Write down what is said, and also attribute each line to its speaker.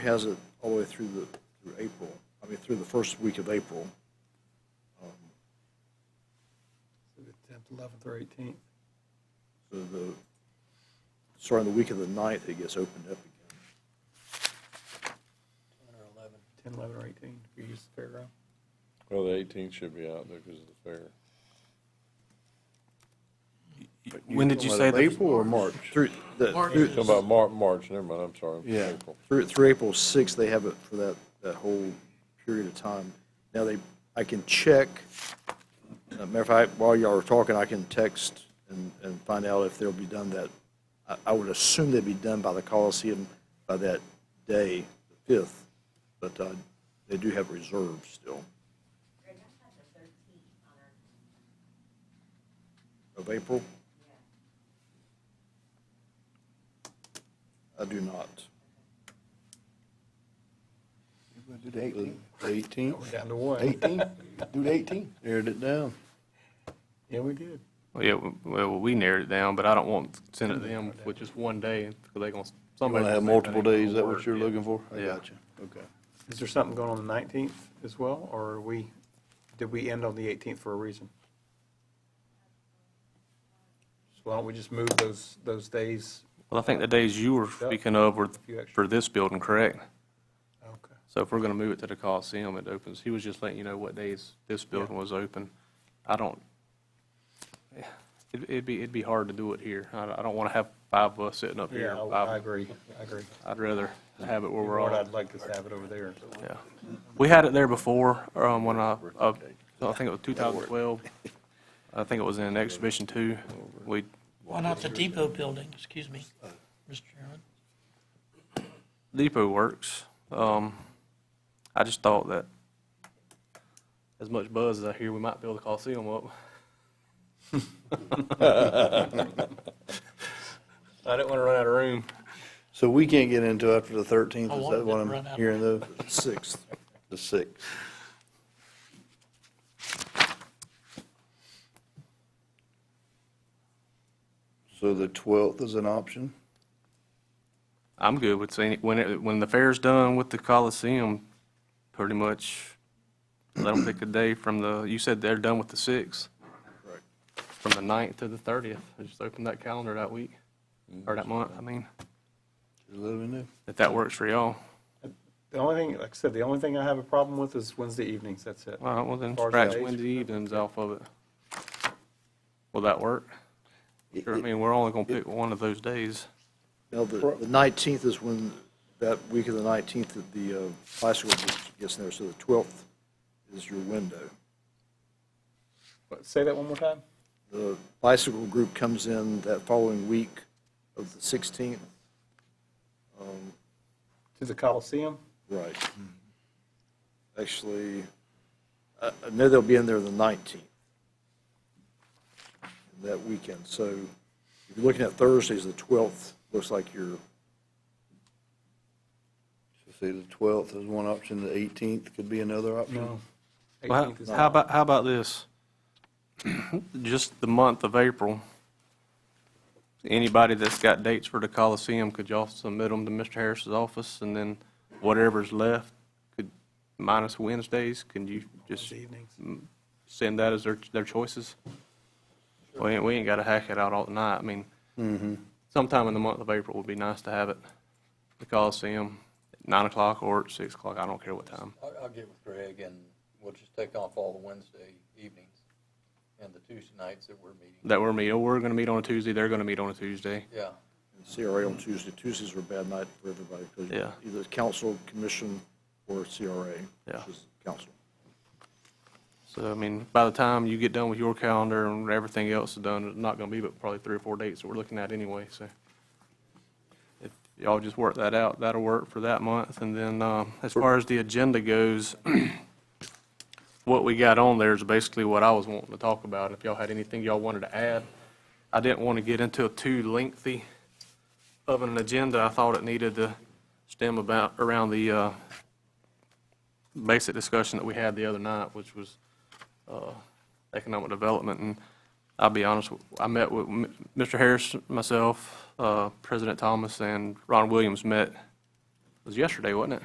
Speaker 1: has it all the way through the, through April, I mean, through the first week of April.
Speaker 2: The 10th, 11th, or 18th.
Speaker 1: So the, starting the week of the ninth, it gets opened up again.
Speaker 2: 10, 11, or 18, if you use the fairground.
Speaker 3: Well, the eighteenth should be out there because of the fair.
Speaker 4: When did you say the,
Speaker 1: April or March? Through, the,
Speaker 3: Talking about Mar- March, never mind, I'm sorry.
Speaker 4: Yeah.
Speaker 3: April.
Speaker 1: through, through April sixth, they have it for that, that whole period of time. Now they, I can check, uh, matter of fact, while y'all are talking, I can text and, and find out if they'll be done that. I, I would assume they'd be done by the Coliseum by that day, the fifth, but, uh, they do have reserves still
Speaker 5: Greg, I had the thirteenth on our,
Speaker 1: of April. I
Speaker 5: yeah,
Speaker 1: do not.
Speaker 6: Do the eighteenth.
Speaker 2: We're
Speaker 6: Eighteenth?
Speaker 2: down to one.
Speaker 6: Eighteenth? Do the eighteenth? Narrowed it down.
Speaker 2: Yeah, we did.
Speaker 4: well, yeah, well, we narrowed it down, but I don't want to send it to them with just one day, because they gonna,
Speaker 6: I'm
Speaker 4: somebody.
Speaker 6: gonna have multiple days, is that what you're looking for? I
Speaker 4: Yeah.
Speaker 6: got you, okay.
Speaker 2: Is there something going on the 19th as well, or are we, did we end on the 18th for a reason? So why don't we just move those, those days?
Speaker 4: Well, I think the days you were speaking of were
Speaker 2: few extra.
Speaker 4: for this building, correct?
Speaker 2: Okay.
Speaker 4: So if we're gonna move it to the Coliseum, it opens, he was just letting you know what days this building was open. I don't, it'd, it'd be, it'd be hard to do it here. I, don't- I don't wanna have five of us sitting up here.
Speaker 2: Yeah, I-
Speaker 4: Five-
Speaker 2: I agree, I agree.
Speaker 4: I'd rather have it where we're all.
Speaker 2: Lord, I'd like to have it over there.
Speaker 4: Yeah. We had it there before, um, when I, uh, I think it was 2012. I think it was in Exhibition Two. We,
Speaker 7: Why not the depot building, excuse me, Mr. Chairman?
Speaker 4: Depot Works. Um, I just thought that as much buzz as I hear, we might build a Coliseum up. I didn't want to run out of room.
Speaker 6: So we can't get into after the thirteenth,
Speaker 7: I
Speaker 6: is
Speaker 7: wanted
Speaker 6: that what
Speaker 7: to
Speaker 6: I'm
Speaker 7: run out.
Speaker 6: hearing though?
Speaker 1: Sixth.
Speaker 6: The sixth. So the twelfth is an option?
Speaker 4: I'm good with seeing, it- when it, when the fair's done with the Coliseum, pretty much, let them pick a day from the, you said they're done with the sixth?
Speaker 1: Correct.
Speaker 4: From the ninth to the thirtieth, just open that calendar that week, or that month, I mean,
Speaker 6: Just Let me know.
Speaker 4: if that works for y'all.
Speaker 2: The only thing, like I said, the only thing I have a problem with is Wednesday evenings, that's it.
Speaker 4: All right, well then,
Speaker 2: As far as
Speaker 4: scratch
Speaker 2: days-
Speaker 4: Wednesday evenings off of it. Will that work? Sure, I mean, we're only gonna pick one of those days.
Speaker 1: Now, the the 19th is when, that week of the 19th, that the uh, bicycle gets- gets in there, so the 12th is your window.
Speaker 2: What, Say that one more time?
Speaker 1: The bicycle group comes in that following week of the 16th.
Speaker 2: To the Coliseum?
Speaker 1: Right. Actually, I I know they'll be in there the 19th, that weekend. So if you're looking at Thursdays, the 12th looks like your
Speaker 6: So See, the twelfth is one option, the eighteenth could be another option.
Speaker 4: Well,
Speaker 2: 18th is
Speaker 4: how- how about, how about this? Just the month of April, anybody that's got dates for the Coliseum, could y'all submit them to Mr. Harris's office? And then whatever's left, could, minus Wednesdays, can you just
Speaker 2: Wednesday evenings.
Speaker 4: send that as their, their choices? We ain't, we ain't gotta hack it out all night. I mean, sometime in the month of April would be nice to have it. The Coliseum, at nine o'clock or at six o'clock, I don't care what time.
Speaker 8: I'll, I'll get with Greg and we'll just take off all the Wednesday evenings and the Tuesday nights that we're meeting.
Speaker 4: that we're meet, oh, we're gonna meet on a Tuesday, they're gonna meet on a Tuesday.
Speaker 8: Yeah,
Speaker 1: CRA on Tuesday. Tuesdays are a bad night for everybody because
Speaker 4: Yeah.
Speaker 1: either council, commission, or CRA.
Speaker 4: Yeah.
Speaker 1: which is Council.
Speaker 4: So, I mean, by the time you get done with your calendar and everything else is done, it's not gonna be but probably three or four dates that we're looking at anyway, so. If y'all just work that out, that'll work for that month, and then, um, as far as the agenda goes, what we got on there is basically what I was wanting to talk about, if y'all had anything y'all wanted to add. I didn't wanna get into a too lengthy of an agenda, I thought it needed to stem about, around the, uh, basic discussion that we had the other night, which was, uh, economic development, and I'll be honest, I met with M- Mr. Harris, myself, uh, President Thomas, and Ron Williams met was yesterday, wasn't it?